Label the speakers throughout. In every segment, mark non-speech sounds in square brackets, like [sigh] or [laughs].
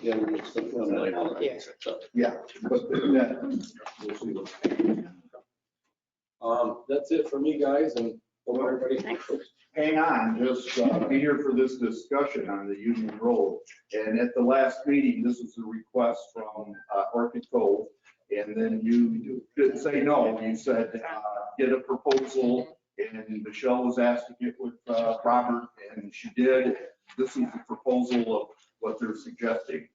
Speaker 1: Yeah, we just looked on that.
Speaker 2: Yeah.
Speaker 3: Yeah, but that, we'll see what.
Speaker 1: Um, that's it for me, guys, and hope everybody.
Speaker 3: hang on, just uh, be here for this discussion on the Union Road. And at the last meeting, this was a request from uh, Orchid Cove. And then you didn't say no, you said, uh, get a proposal. And Michelle was asked to get with uh, Robert, and she did. This is the proposal of what they're suggesting.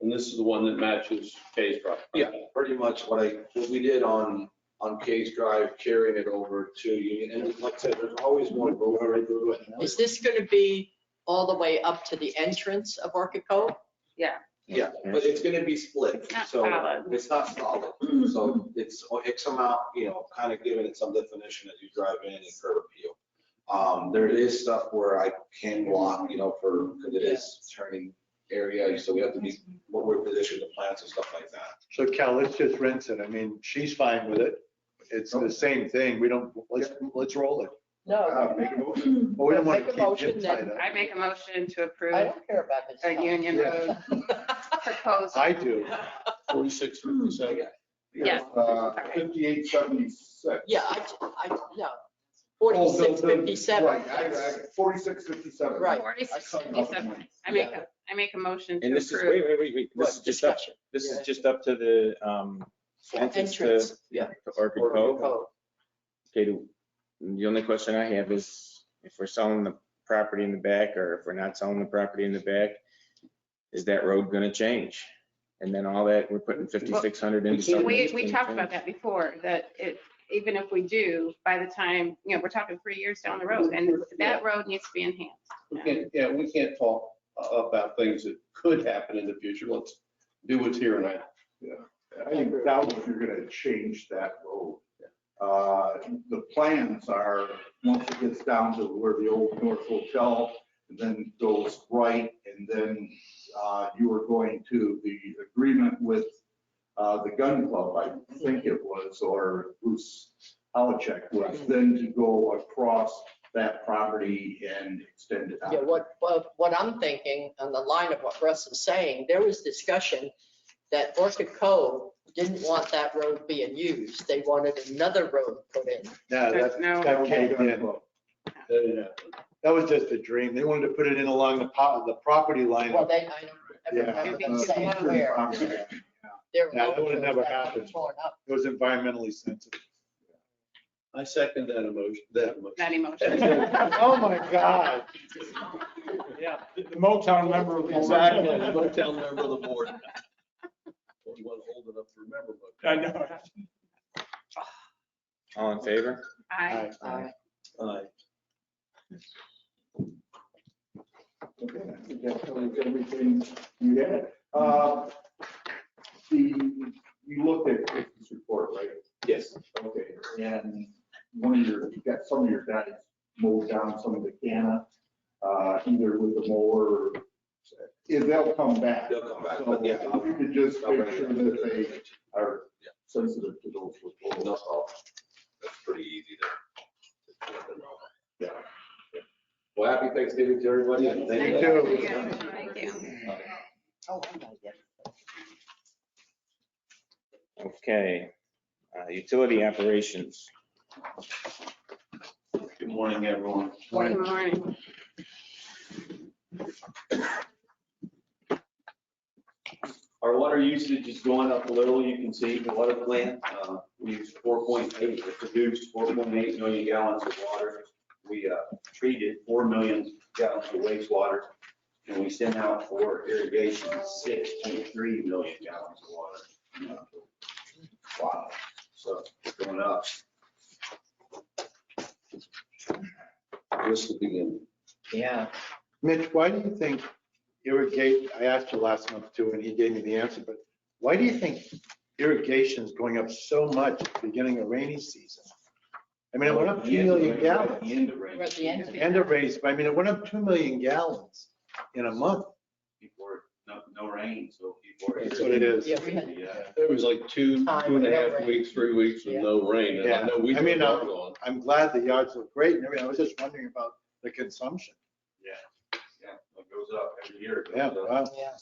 Speaker 4: And this is the one that matches Kay's property.
Speaker 1: Yeah, [laughs] pretty much what I, what we did on, on Case Drive, carrying it over to Union, and like I said, there's always one road over to it.
Speaker 2: Is this going to be all the way up to the entrance of Orchid Cove?
Speaker 1: Yeah, but it's gonna be split,
Speaker 5: It's not
Speaker 1: so uh,
Speaker 5: solid.
Speaker 1: it's not solid,
Speaker 5: [laughs]
Speaker 1: so it's, it's amount, you know, kind of giving it some definition as you drive in and curb appeal. Um, there is stuff where I can block, you know, for, because it is turning area, so we have to be, what we're positioned, the plants and stuff like that.
Speaker 6: So Cal, let's just rinse it. I mean, she's fine with it. It's the same thing. We don't, let's, let's roll it.
Speaker 3: Uh, Make a motion.
Speaker 6: But we don't want
Speaker 2: Make a
Speaker 6: to keep
Speaker 2: motion
Speaker 6: Jim tied
Speaker 2: then.
Speaker 6: up.
Speaker 5: I make a motion to
Speaker 2: I
Speaker 5: approve
Speaker 2: don't care about this
Speaker 5: a
Speaker 2: stuff.
Speaker 5: Union
Speaker 6: Yeah.
Speaker 5: Road proposal.
Speaker 6: I do.
Speaker 4: Forty-six fifty-seven.
Speaker 5: Yes.
Speaker 3: Uh, 5876.
Speaker 2: Yeah, I, I, no.
Speaker 3: Oh, the- the-
Speaker 2: 4657.
Speaker 3: Right, I- I- 4657.
Speaker 2: Right.
Speaker 5: Forty-six fifty-seven. I make, a I make a motion to
Speaker 7: And this is,
Speaker 5: approve.
Speaker 7: wait, wait, wait, wait, this is
Speaker 2: What,
Speaker 7: just up,
Speaker 2: discussion?
Speaker 7: this
Speaker 2: Yeah.
Speaker 7: is just up to the, um, entrance to
Speaker 2: Entrance, yeah.
Speaker 7: to Orchid Cove. Okay, the- the only question I have is if we're selling the property in the back or if we're not selling the property in the back, is that road gonna change? And then all that, we're putting fifty-six hundred into something.
Speaker 5: We,
Speaker 7: that's
Speaker 5: we
Speaker 7: gonna
Speaker 5: talked about
Speaker 7: change.
Speaker 5: that before, that it, even if we do, by the time, you know, we're talking three years down the road, and that road needs to be enhanced.
Speaker 4: We can't, yeah, we can't talk uh, about things that could happen in the future. Let's do what's here and now.
Speaker 3: I think doubt if you're gonna change that road. Uh, The plans are, once it gets down to where the old North Hotel, and then goes right, and then uh, you are going to the agreement with uh, the gun club, I think it was, or Bruce Howcheck was, then to go across that property and extend it out.
Speaker 2: Yeah, what, what- what I'm thinking, on the line of what Russ is saying, there was discussion that Orchid Cove didn't want that road being used. They wanted another road put in.
Speaker 6: No, that,
Speaker 5: No.
Speaker 6: that caved in.
Speaker 4: That didn't happen.
Speaker 6: That was just a dream. They wanted to put it in along the pot, the property line.
Speaker 2: Well, they, I
Speaker 3: Yeah.
Speaker 2: don't remember them
Speaker 5: Uh,
Speaker 2: saying
Speaker 3: Eastern
Speaker 2: where.
Speaker 3: property.
Speaker 2: Their
Speaker 6: Yeah, that
Speaker 2: road
Speaker 6: would've never
Speaker 2: was
Speaker 6: happened.
Speaker 2: torn up.
Speaker 6: It was environmentally sensitive.
Speaker 4: I second that emotion, that
Speaker 5: That
Speaker 4: emotion.
Speaker 5: emotion.
Speaker 6: Oh, my God. Yeah, the Motown member. of the-
Speaker 4: Exactly, the Motown member of the board. Only one old enough to remember, but.
Speaker 6: I know.
Speaker 7: All in favor?
Speaker 5: I,
Speaker 2: Uh,
Speaker 4: Aye.
Speaker 3: Okay, I think that covers everything you had. Uh, The, you looked at this report, right?
Speaker 1: Yes.
Speaker 3: Okay, and one of your, you got some of your guys mowed down some of the canna, uh, either with the mower or, if they'll come back.
Speaker 1: They'll come back, but yeah.
Speaker 3: So if You could just
Speaker 1: I'll
Speaker 3: make
Speaker 1: bring it
Speaker 3: sure
Speaker 1: up.
Speaker 3: that they are
Speaker 1: Yeah.
Speaker 3: sensitive to those reports.
Speaker 1: No problem. That's pretty easy there.
Speaker 3: Yeah.
Speaker 1: Well, happy Thanksgiving to everybody. and thank
Speaker 6: You too.
Speaker 5: Yeah, thank you.
Speaker 2: oh, I know, yeah.
Speaker 7: Okay, uh, utility operations.
Speaker 4: Good morning, everyone.
Speaker 5: Good morning.
Speaker 1: Our water usage is going up a little, you can see the water plant, uh, we use four point eight, we produced four point eight million gallons of water. We, uh, treated four million gallons of wastewater, and we sent out for irrigation six point three million gallons of water. Wow, so it's going up. This will begin.
Speaker 2: Yeah.
Speaker 6: Mitch, why do you think irrigate, I asked you last month too, and he gave me the answer, but why do you think irrigation is going up so much at the beginning of rainy season? I mean, it went up 2 million gallons.
Speaker 1: End of rain,
Speaker 2: We're at the end of it.
Speaker 6: And a raise, but I mean, it went up 2 million gallons in a month.
Speaker 1: before, no, no rain, so before.
Speaker 6: That's what it is.
Speaker 2: Yeah, we had-
Speaker 1: Yeah.
Speaker 4: There was like two, two and a half weeks, three weeks with no rain. And I know we
Speaker 6: Yeah. I mean, uh,
Speaker 4: worked on.
Speaker 6: I'm glad the yards look great and everything. I was just wondering about the consumption.
Speaker 1: Yeah, it goes up every year. uh, it goes
Speaker 6: Yeah,
Speaker 1: up.
Speaker 6: wow.
Speaker 2: Yeah.